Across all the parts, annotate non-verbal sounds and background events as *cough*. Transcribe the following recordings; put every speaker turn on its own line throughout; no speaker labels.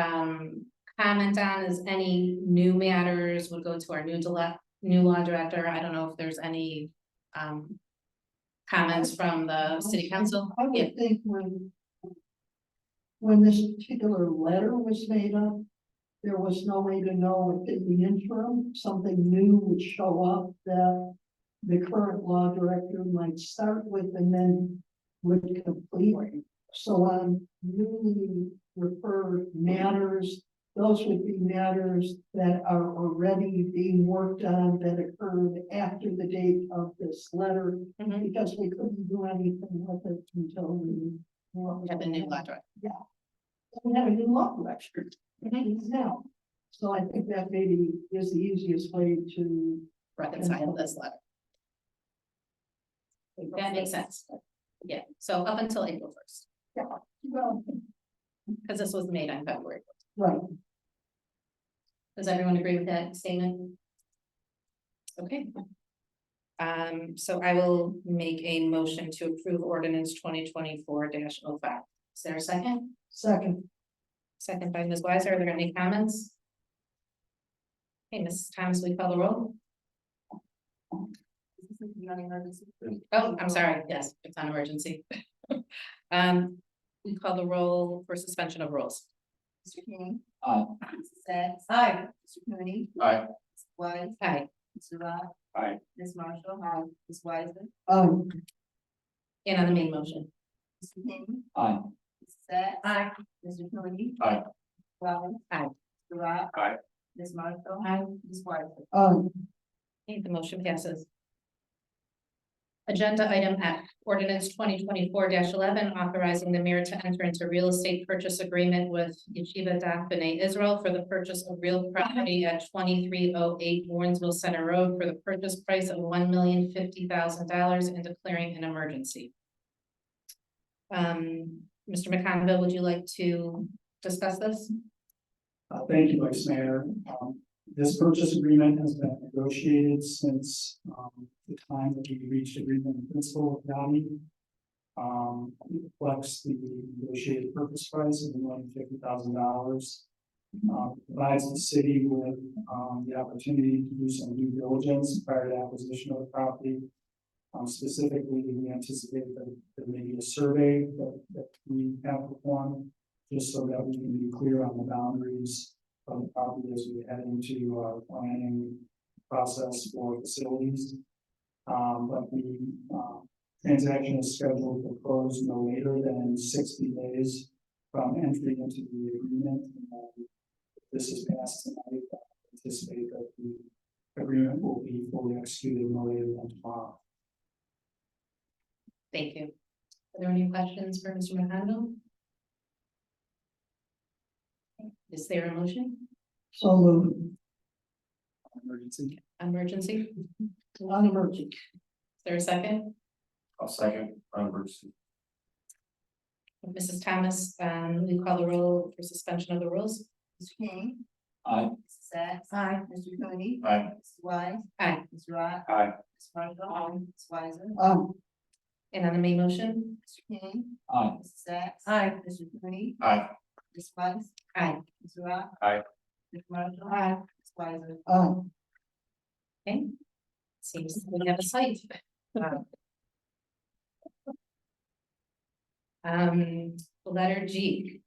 um, comment on is any new matters would go to our new dile- new law director. I don't know if there's any, um, comments from the city council.
I
Yeah.
would think when. When this particular letter was made up, there was no way to know if in the interim, something new would show up that. The current law director might start with and then would complete. So on newly referred matters, those would be matters that are already being worked on that occurred after the date of this letter
Mhm.
because we couldn't do anything with it until we.
We have the new law director.
We had a new law director
Mhm.
now, so I think that maybe is the easiest way to.
Reconcile this letter. That makes sense. Yeah, so up until April first,
Well,
because this was made on February.
right,
Does everyone agree with that statement? Okay. Um, so I will make a motion to approve ordinance twenty twenty-four 5 Is there a second?
second,
Second by Ms. Weiser. Are there any comments? Okay, Ms. Thomas, we call the roll. Oh, I'm sorry. Yes, it's on emergency. *laughs* Um, we call the roll for suspension of rules.
Mr. King.
Aye.
Mrs. Sacks. Aye. Mr. Cooney.
Aye.
Wise.
Hi,
Mr. Rock.
Aye.
Ms. Marshall. Aye. Ms. Wiseman.
um,
and on the main motion.
Mr. King.
Aye.
Mrs. Sacks.
Aye.
Mr. Cooney.
Aye.
Wise.
Aye.
Mr. Rock.
Aye.
Ms. Marshall.
Aye.
Ms. Wiseman.
um,
Okay, the motion passes. Agenda item F, ordinance twenty twenty-four eleven, authorizing the mayor to enter into real estate purchase agreement with Yeshiva Daf B'nai Israel for the purchase of real property at twenty-three oh eight Warrensville Center Road for the purchase price of one million fifty thousand dollars and declaring an emergency. Um, Mr. McConville, would you like to discuss this?
Uh, thank you, Vice Mayor. Um, this purchase agreement has been negotiated since, um, the time that we reached agreement in principle with Downey. Um, it reflects the negotiated purchase price of one hundred fifty thousand dollars. Uh, provides the city with, um, the opportunity to do some due diligence prior to acquisition of the property. Um, specifically, we anticipate that there may be a survey that, that we have performed just so that we can be clear on the boundaries of the property as we head into our planning process for facilities. Um, but the, uh, transaction is scheduled to close no later than sixty days from entry into the agreement. And if This is passed tonight, I anticipate that the agreement will be fully executed no later than tomorrow.
Thank you. Are there any questions for Mr. McConville? Is there a motion,
so moved.
Emergency.
emergency? Is
on emergency,
there a second?
I'll second, emergency.
Mrs. Thomas, um, we call the roll for suspension of the rules.
Mr. King.
Aye.
Mrs. Sacks.
Aye.
Mr. Cooney.
Aye.
Mrs. Wise.
Aye.
Mr. Rock.
Aye.
Ms. Marshall. Aye. Ms. Wiseman.
um,
And on the main motion,
Mr. King.
Aye.
Mrs. Sacks.
Aye.
Mr. Cooney.
Aye.
Ms. Weiss.
Aye.
Ms. Rock.
Aye.
Ms. Marshall.
Aye.
Ms. Wiseman.
um,
okay. Seems we have a site. Uh, Um, letter G.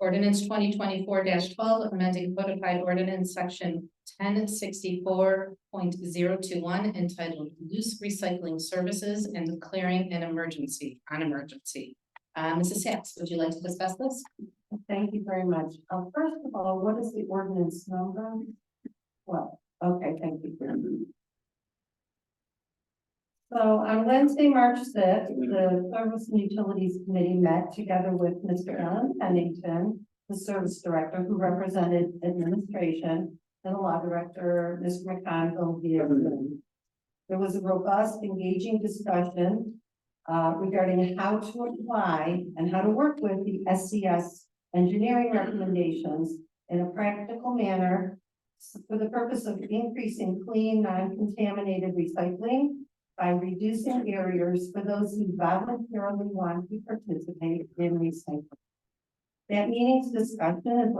Ordinance twenty twenty-four twelve, amending codified ordinance section ten sixty-four point zero two one entitled loose recycling services and declaring an emergency, an emergency. Uh, Mrs. Sacks, would you like to discuss this?
Thank you very much. Uh, first of all, what is the ordinance number? Well, okay, thank you. for So on Wednesday, March sixth, the Service and Utilities Committee met together with Mr. Alan Pennington, the Service Director who represented administration, and the Law Director, Mr. McConville, via Zoom. There was a robust, engaging discussion uh, regarding how to apply and how to work with the SCS engineering recommendations in a practical manner s- for the purpose of increasing clean, non-contaminated recycling by reducing barriers for those who voluntarily want to participate in recycling. That meeting's discussion is